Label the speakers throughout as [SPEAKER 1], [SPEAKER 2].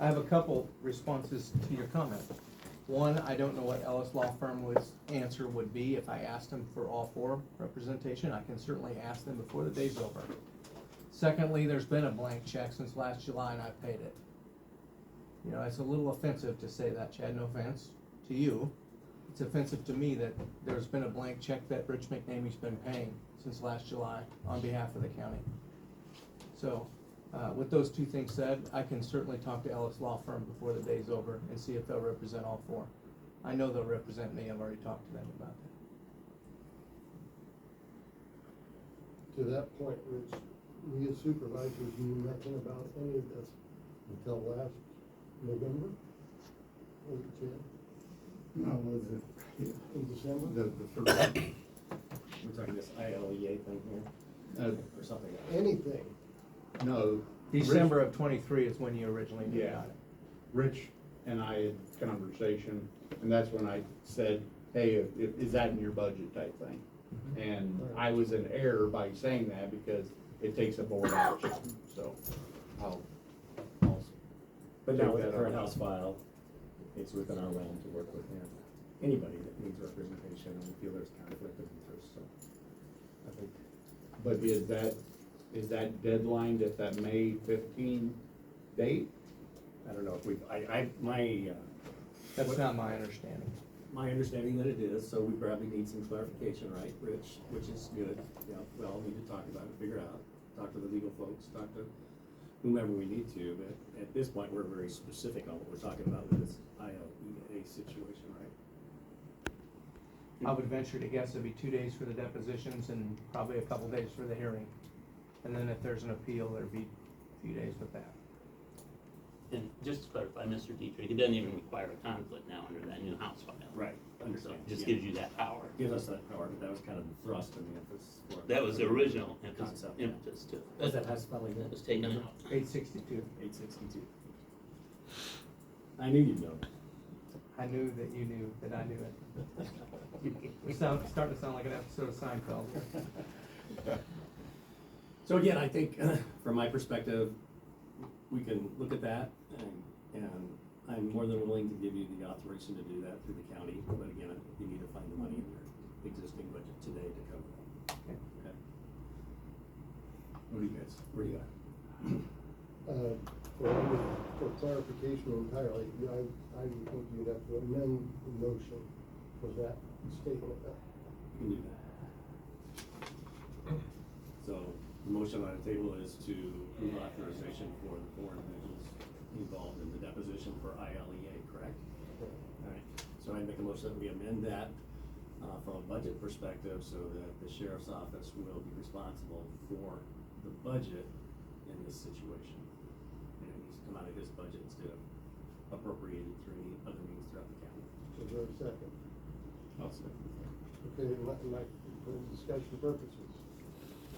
[SPEAKER 1] I have a couple responses to your comment. One, I don't know what Ellis Law Firm was, answer would be if I asked them for all four representation. I can certainly ask them before the day's over. Secondly, there's been a blank check since last July and I paid it. You know, it's a little offensive to say that, Chad, no offense to you. It's offensive to me that there's been a blank check that Rich McNamee's been paying since last July on behalf of the county. So, uh, with those two things said, I can certainly talk to Ellis Law Firm before the day's over and see if they'll represent all four. I know they'll represent me, I've already talked to them about that.
[SPEAKER 2] To that point, Rich, we as supervisors knew nothing about any of this until last November, was it, Chad?
[SPEAKER 3] No, was it,
[SPEAKER 2] In
[SPEAKER 3] the,
[SPEAKER 2] December?
[SPEAKER 3] the first,
[SPEAKER 4] We're talking this ILEA thing here,
[SPEAKER 3] uh,
[SPEAKER 4] or something.
[SPEAKER 2] Anything.
[SPEAKER 3] no. Rich-
[SPEAKER 1] December of twenty-three is when you originally knew
[SPEAKER 3] Yeah,
[SPEAKER 1] about it.
[SPEAKER 3] Rich and I had conversation, and that's when I said, hey, i- i- is that in your budget type thing? And I was in error by saying that because it takes a board action, so I'll, I'll,
[SPEAKER 4] But now with the
[SPEAKER 3] Take that
[SPEAKER 4] current
[SPEAKER 3] out.
[SPEAKER 4] House file, it's within our realm to work with and anybody that needs representation and we feel there's conflict of interest, so. I think,
[SPEAKER 3] but is that, is that deadline at that May fifteen date?
[SPEAKER 4] I don't know if we, I, I, my, uh,
[SPEAKER 1] That's not my understanding.
[SPEAKER 4] my understanding that it is, so we probably need some clarification, right, Rich? Which is good, yeah, we all need to talk about it, figure out, talk to the legal folks, talk to whomever we need to, but at this point, we're very specific on what we're talking about with this ILEA situation, right?
[SPEAKER 1] I would venture to guess it'd be two days for the depositions and probably a couple days for the hearing. And then if there's an appeal, there'd be a few days with that.
[SPEAKER 5] And just to clarify, Mr. Dietrich, it doesn't even require a conflict now under that new House file.
[SPEAKER 4] Right,
[SPEAKER 5] So
[SPEAKER 4] understand.
[SPEAKER 5] it just
[SPEAKER 4] yeah.
[SPEAKER 5] gives you that power.
[SPEAKER 4] Give us that power, but that was kind of the thrust and the emphasis for it.
[SPEAKER 5] That was the original impetus,
[SPEAKER 4] Concept, yeah.
[SPEAKER 5] impetus to
[SPEAKER 4] Was that
[SPEAKER 5] it.
[SPEAKER 4] how spelling
[SPEAKER 5] That
[SPEAKER 4] it?
[SPEAKER 5] was taken out.
[SPEAKER 1] Eight sixty-two.
[SPEAKER 4] Eight sixty-two. I knew you'd know.
[SPEAKER 1] I knew that you knew that I knew it. It sounds, starting to sound like an episode of Seinfeld.
[SPEAKER 4] So again, I think, from my perspective, we can look at that, and, and I'm more than willing to give you the authorization to do that through the county, but again, I- you need to find the money in your existing budget today to cover that.
[SPEAKER 1] Okay.
[SPEAKER 4] Okay. What do you guys, where do you at?
[SPEAKER 2] Uh, For, for clarification entirely, I, I would think you'd have to amend the motion for that statement. Uh,
[SPEAKER 4] You can do that. So, the motion on the table is to approve authorization for the four individuals involved in the deposition for ILEA, correct? Alright, so I make a motion that we amend that, uh, from a budget perspective, so that the sheriff's office will be responsible for the budget in this situation. And it needs to come out of his budget instead of appropriated through any other means throughout the county.
[SPEAKER 2] Is there a second? Okay, my, my, for discussion purposes,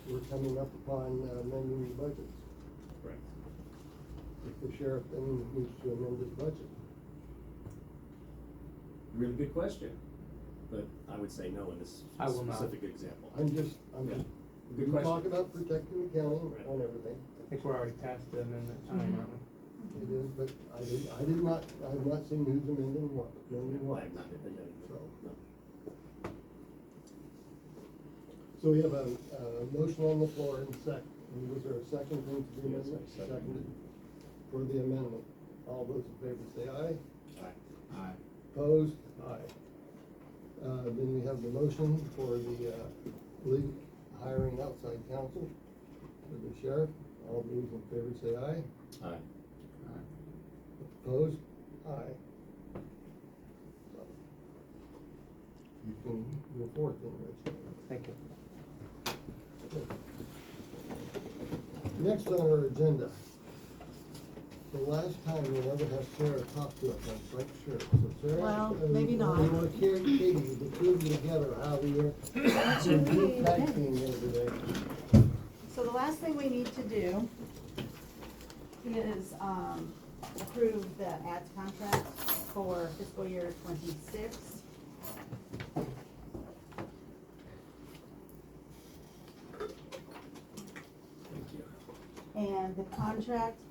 [SPEAKER 2] we're coming up upon uh, amending the budget.
[SPEAKER 4] Correct.
[SPEAKER 2] If the sheriff then needs to amend his budget,
[SPEAKER 4] Really good question, but I would say no in this
[SPEAKER 1] I will not.
[SPEAKER 4] specific example.
[SPEAKER 2] I'm just, I'm just,
[SPEAKER 4] Yeah. Good
[SPEAKER 2] we talk
[SPEAKER 4] question.
[SPEAKER 2] about protecting the county
[SPEAKER 4] Right.
[SPEAKER 2] on everything.
[SPEAKER 1] I think we're already past the amendment time, aren't we?
[SPEAKER 2] It is, but I did, I did not, I've not seen who's amending what, amending what.
[SPEAKER 4] Why I'm not gonna do that.
[SPEAKER 2] So.
[SPEAKER 4] No.
[SPEAKER 2] So we have a, a motion on the floor and sec, and was there a second thing to the
[SPEAKER 4] Yes, I
[SPEAKER 2] amendment?
[SPEAKER 4] seconded.
[SPEAKER 2] Seconded for the amendment. All those in favor say aye.
[SPEAKER 3] Aye.
[SPEAKER 2] Opposed? Aye. Uh, then we have the motion for the, uh, league hiring outside counsel for the sheriff. All those in favor say aye.
[SPEAKER 4] Alright.
[SPEAKER 2] Opposed? Aye. So, You can move forward then,
[SPEAKER 1] Thank you.
[SPEAKER 2] Rich. Next on our agenda, the last time we'll ever have Sarah talk to us, I'm quite sure. So Sarah,
[SPEAKER 6] Well,
[SPEAKER 2] uh,
[SPEAKER 6] maybe not.
[SPEAKER 2] We want Carrie, Katie, the two of you together, how you're, you're tag teaming here today.
[SPEAKER 6] So the last thing we need to do is um, approve the ads contract for fiscal year twenty-six.
[SPEAKER 4] Thank you.
[SPEAKER 6] And the contract um,